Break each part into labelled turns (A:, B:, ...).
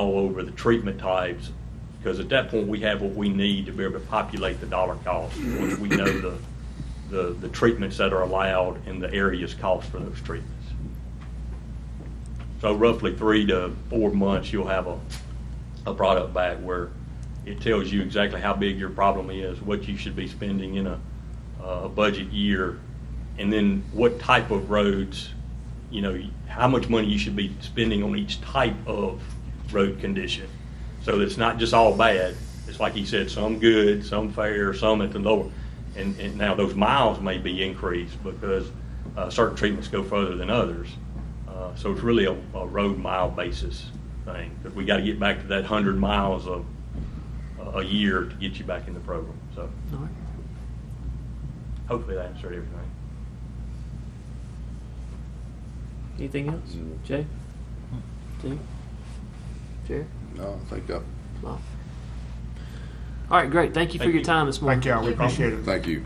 A: all over the treatment types, because at that point, we have what we need to be able to populate the dollar cost, once we know the, the, the treatments that are allowed and the areas cost for those treatments. So roughly three to four months, you'll have a, a product back where it tells you exactly how big your problem is, what you should be spending in a, a budget year, and then what type of roads, you know, how much money you should be spending on each type of road condition. So it's not just all bad. It's like he said, some good, some fair, some at the lower. And, and now those miles may be increased because uh, certain treatments go further than others. Uh, So it's really a, a road mile basis thing, because we got to get back to that hundred miles of, a- a year to get you back in the program, so
B: All right.
A: hopefully that answered everything.
B: Anything else? Jay?
A: Hmm.
B: Steve? Jerry?
C: No, I think that,
B: Bob? All right, great. Thank you for
A: Thank
B: your
A: you.
B: time this morning.
D: Thank y'all, we appreciate it.
C: thank you.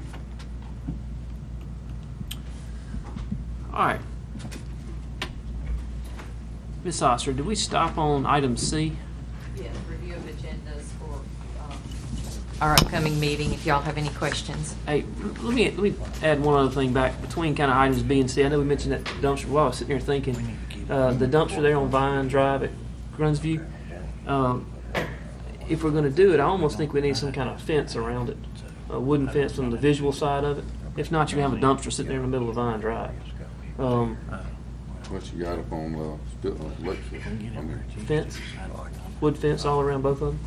B: All right. Miss Oster, did we stop on item C?
E: Yes, review of agendas for um, our upcoming meeting, if y'all have any questions.
B: Hey, let me, let me add one other thing back between kind of items B and C. I know we mentioned that dumpster, while I was sitting here thinking, uh, the dumpster there on Vine Drive at Grunsview. Um, if we're gonna do it, I almost think we need some kind of fence around it, a wooden fence on the visual side of it. If not, you have a dumpster sitting there in the middle of Vine Drive. Um,
C: What you got up on, uh, still on Lexus? I mean,
B: fence, wood fence all around both of them.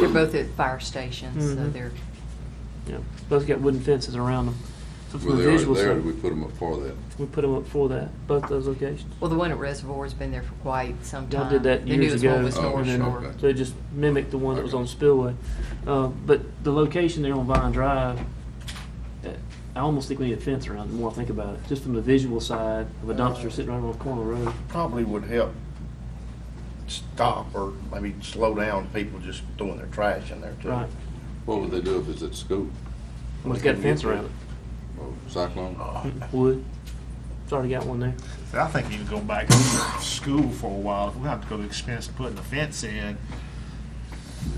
E: They're both at fire stations, so
B: Mhm.
E: they're,
B: Yeah, both got wooden fences around them. So
C: Well,
B: from the
C: they already
B: visual
C: there,
B: side,
C: we put them up for that.
B: we put them up for that, both those locations.
E: well, the one at Reservoir's been there for quite some
B: Y'all
E: time.
B: did that years
E: The
B: ago. uh,
E: newest
C: Oh,
E: one was North
C: okay.
E: Shore.
B: So it just mimicked the one that was
C: Okay.
B: on Spillway. Uh, but the location there on Vine Drive, uh, I almost think we need a fence around it, the more I think about it, just from the visual side of a dumpster sitting right on the corner of the road.
F: probably would help stop or maybe slow down people just throwing their trash in there too.
B: Right.
C: What would they do if it's at school?
B: Well, it's got a fence around it,
C: Oh, Cyclone?
B: wood. It's already got one there.
D: I think you can go back to school for a while. We'll have to go to the expense of putting a fence in.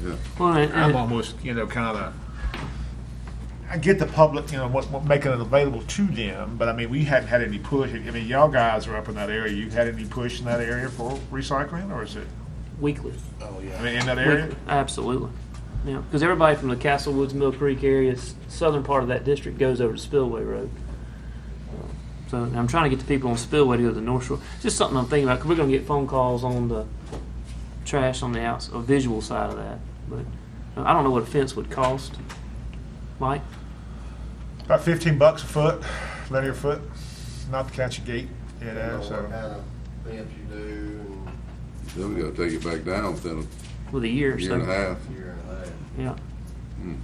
C: Yeah.
B: Well, and-
D: I'm
B: and-
D: almost, you know, kind of. I get the public, you know, what, what making it available to them, but I mean, we haven't had any push. I mean, y'all guys are up in that area. You had any push in that area for recycling, or is it?
B: weekly.
F: Oh,
D: I
F: yeah.
D: mean, in that area.
B: Weekly. Absolutely. Yeah, because everybody from the Castle Woods, Mill Creek area, s- southern part of that district goes over to Spillway Road. So I'm trying to get the people on Spillway to go to the North Shore. It's Just something I'm thinking about, 'cause we're gonna get phone calls on the trash on the outs, a visual side of that. But uh, I don't know what a fence would cost. Mike?
D: About fifteen bucks a foot, linear foot, not the county gate, you know, so.
G: Fence you do and
C: Then we gotta take it back down within
B: With a year
C: a
B: or
C: year
B: so.
C: and a half.
G: year and a half.
B: Yeah.
C: Hmm.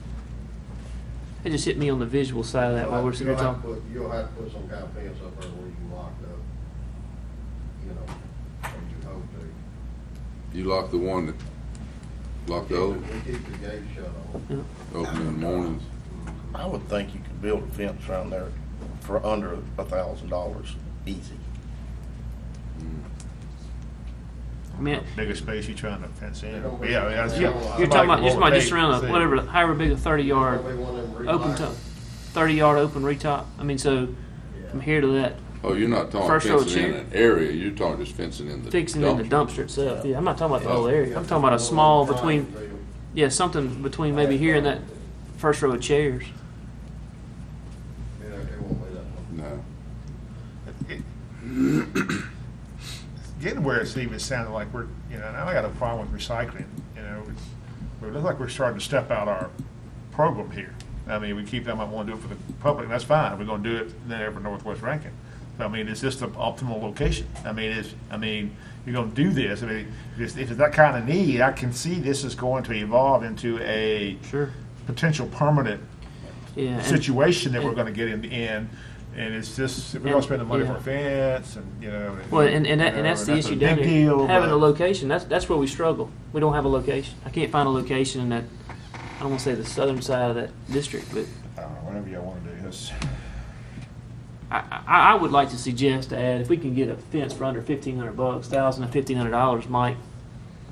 B: It just hit me on the visual side of that while we're sitting here
G: You'll have to
B: talking.
G: put- You'll have to put some kind of fence up there where you locked up, you know, or you hope to.
C: You lock the one that, lock the old,
G: We keep the gate shut on.
B: Yeah.
C: open in the mornings.
F: I would think you could build a fence around there for under a thousand dollars, easy.
B: I mean,
D: Bigger space you trying to fence in.
G: They don't-
D: Yeah, I mean,
G: they
D: that's-
G: don't allow-
B: you're talking about, you're talking about just
D: Hey,
B: around
D: see.
B: a, whatever, however big a thirty yard.
G: Probably one of them
B: open
G: relocks.
B: top, thirty yard open retop. I mean, so from here to that,
C: Oh, you're not
B: First
C: talking
B: row
C: fencing in
B: chair.
C: an area, you're talking just fencing in the
B: fixing in the
C: dumpster.
B: dumpster itself. Yeah, I'm not talking about the whole
G: Yeah,
B: area. I'm talking about a
G: one
B: small
G: of them
B: between,
G: triangle.
B: yeah, something between maybe here and that first row of chairs.
G: Yeah, they won't let that one.
C: No.
D: it- getting where it's even sounding like we're, you know, now I got a problem with recycling, you know, it's, it looks like we're starting to step out our program here. I mean, we keep them, I want to do it for the public, and that's fine, we're gonna do it then for Northwest Rankin. But I mean, is this the optimal location? I mean, is, I mean, you're gonna do this, I mean, if if it's that kind of need, I can see this is going to evolve into a
B: Sure.
D: potential permanent
B: Yeah. And,
D: situation that we're gonna get in the end, and it's just, we're gonna spend the money for a fence, and, you know.
B: well, and, and, that, and that's the issue down
D: Big
B: here.
D: deal,
B: Having
D: but-
B: a location, that's that's where we struggle. We don't have a location. I can't find a location in that. I don't want to say the southern side of that district, but
D: I don't know, whatever y'all wanna do, that's,
B: I, I, I would like to suggest to add if we can get a fence for under fifteen hundred bucks, thousand to fifteen hundred dollars, Mike,